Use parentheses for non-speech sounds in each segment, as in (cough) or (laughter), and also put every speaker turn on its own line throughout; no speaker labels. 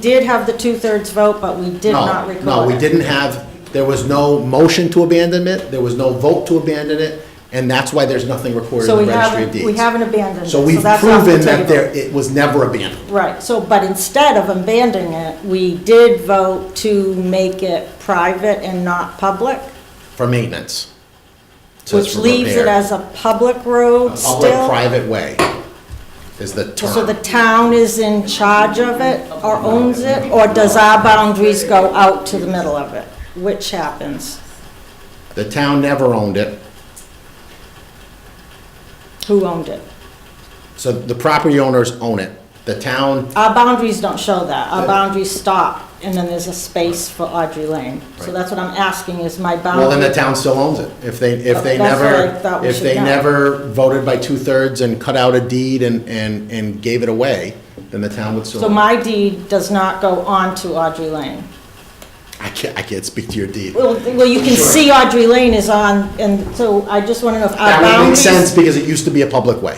did have the two-thirds vote, but we did
No,
not record it.
No, we didn't have, there was no motion to abandon it, there was no vote to abandon it, and that's why there's nothing recorded
So
in the
we
registry of
haven't,
deeds.
we haven't abandoned it.
So we've
that's off the
proven that
table.
there, it was never abandoned.
Right, so, but instead of abandoning it, we did vote to make it private and not public,
for maintenance. So it's
which
for
leaves it
repair.
as a public road still.
Public-private way is the
So the
term.
town is in charge of it, or owns it, or does our boundaries go out to the middle of it? Which happens?
The town never owned it,
Who owned it?
so the property owners own it. The town,
Our boundaries don't show that. Our boundaries stop, and then there's a space for Audrey Lane. So
Right.
that's what I'm asking, is my boundary.
well, then the town still owns it. If they, if they
Um, That's what I
never,
thought we
if
should
they
know.
never voted by two-thirds and cut out a deed and, and, and gave it away, then the town would still.
So
own it.
my deed does not go on to Audrey Lane.
I can't, I can't speak to your deed.
Well, uh, th- well, you can
Sure.
see Audrey Lane is on, and so I just want to know if our
That would make
boundaries.
sense because it used to be a public way,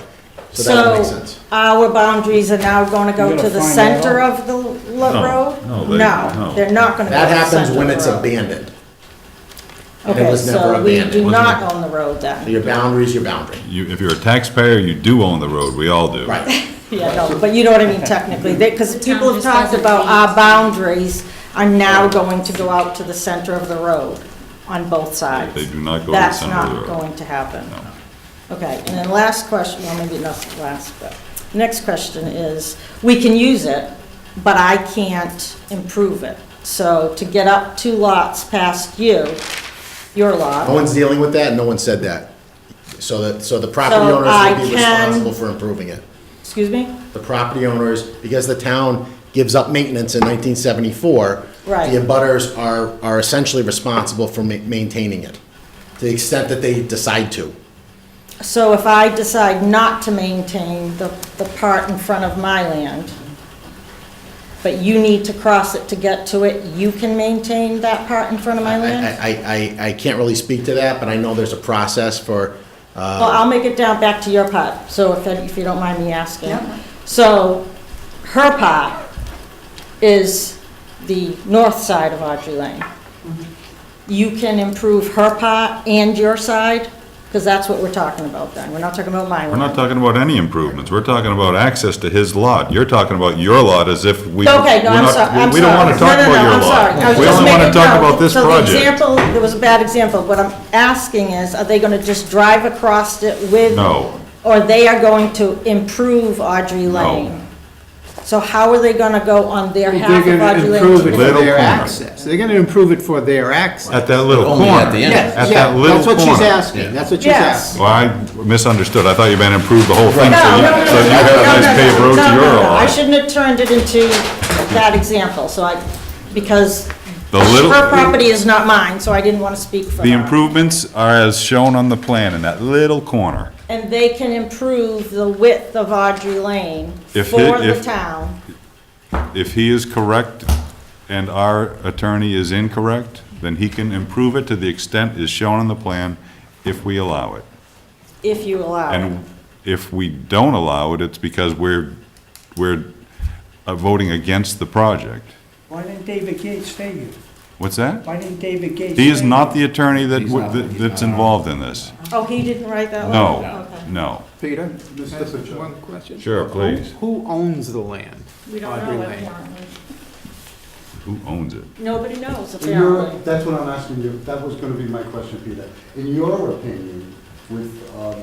so that would make sense.
So our boundaries are now going to go
You
to
gotta
the
find
center
out.
of the lo-
No,
road?
no, they- no.
they're not going to go
That
to the center
happens
of the
when it's
road.
abandoned. and it was never
Okay, so we
abandoned,
do
wasn't
not
it?
own the road
So
then.
Your boundary is your boundary.
You, if you're a taxpayer, you do own the road, we all
(laughs)
do.
Right.
Yeah, no, but you know what I mean technically, because
The town
people have
just
talked
doesn't
about our
change.
boundaries are now going to go out to the center of the road on both sides.
They do not go to the
That's
center of the
not
road.
going to happen. Okay, and then last question, well, maybe not last, but, next question is, we can use it, but I can't improve it. So to get up two lots past you, your lot.
No one's dealing with that, no one said that. So that, so the property
So I
owners would be
can-
responsible for improving it.
Excuse me?
The property owners, because the town gives up maintenance in nineteen seventy-four,
Right.
the abutters are, are essentially responsible for ma- maintaining it, to the extent that they decide to.
So if I decide not to maintain the, the part in front of my land, but you need to cross it to get to it, you can maintain that part in front of my
I,
land?
I, I, I can't really speak to that, but I know there's a process for, uh,
Well, I'll make it down back to your part, so if, if you don't mind me asking.
Yeah.
So her part is the north side of Audrey Lane. You can improve her part and your side, because that's what we're talking about then. We're not talking about my land.
We're not talking about any improvements, we're talking about access to his lot. You're talking about your lot as if we.
Okay, no,
we're
I'm
not-
sorry, I'm sorry.
We don't wanna talk
No, no, no,
about your
I'm sorry. I
lot.
was
We
just
only wanna
making-
talk
no.
about this
So the
project.
example, there was a bad example, what I'm asking is, are they gonna just drive across it with?
No.
Or they are going to improve Audrey Lane? So how are they gonna go on their half
They're
of
gonna
Audrey
improve it
Lane?
for
Little
their
corner.
access. They're gonna improve it for their access.
At that little corner.
Only at the end.
Yes,
At
yeah,
that little
that's what she's
corner.
asking, that's what she's
Yes.
asking.
Well, I misunderstood, I thought you meant improve the whole thing,
No,
so
no,
you,
no, no,
so you
no,
have a
no,
nice
no,
paved
no,
road to
no,
your
no, no. I
lot.
shouldn't have turned it into that example, so I, because
The little-
her property is not mine, so I didn't wanna speak for her.
The improvements are as shown on the plan in that little corner.
And they can improve the width of Audrey Lane
If
for
it-
the
if-
town.
If he is correct and our attorney is incorrect, then he can improve it to the extent is shown on the plan if we allow it.
if you allow it.
And if we don't allow it, it's because we're, we're uh, voting against the project.
Why didn't David Gates stay you?
What's that?
Why didn't David Gates?
He is
stay you?
not the attorney that,
He's not-
that- that's involved in this.
Oh, he didn't write that one?
No,
Okay.
no.
Peter, just one question.
Sure,
Who-
please.
Who owns the land?
We don't
Audrey
know it
Lane.
apparently.
Who owns it?
Nobody knows
In your,
apparently.
that's what I'm asking you, that was gonna be my question, Peter. In your opinion, with, um,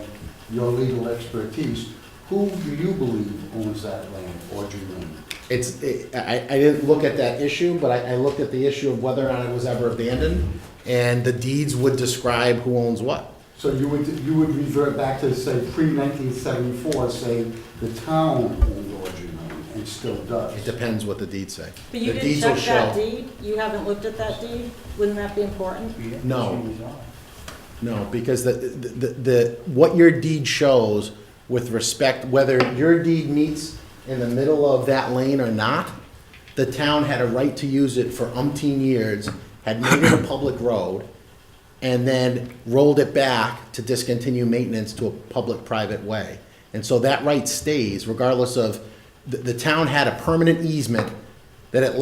your legal expertise, who do you believe owns that land, Audrey Lane?
It's, it- I, I didn't look at that issue, but I, I looked at the issue of whether or not it was ever abandoned, and the deeds would describe who owns what.
So you would, you would revert back to, say, pre-nineteen seventy-four, say, the town owned Audrey Lane, and still
It
does.
depends what the deeds say.
But you
The
didn't
deeds will
check that
show-
deed? You haven't looked at that deed? Wouldn't that be important?
No, no, because the, the, the, what your deed shows with respect, whether your deed meets in the middle of that lane or not, the town had a right to use it for umpteen years, had made it a public road, and then rolled it back to discontinue maintenance to a public-private way. And so that right stays regardless of, the, the town had a permanent easement that it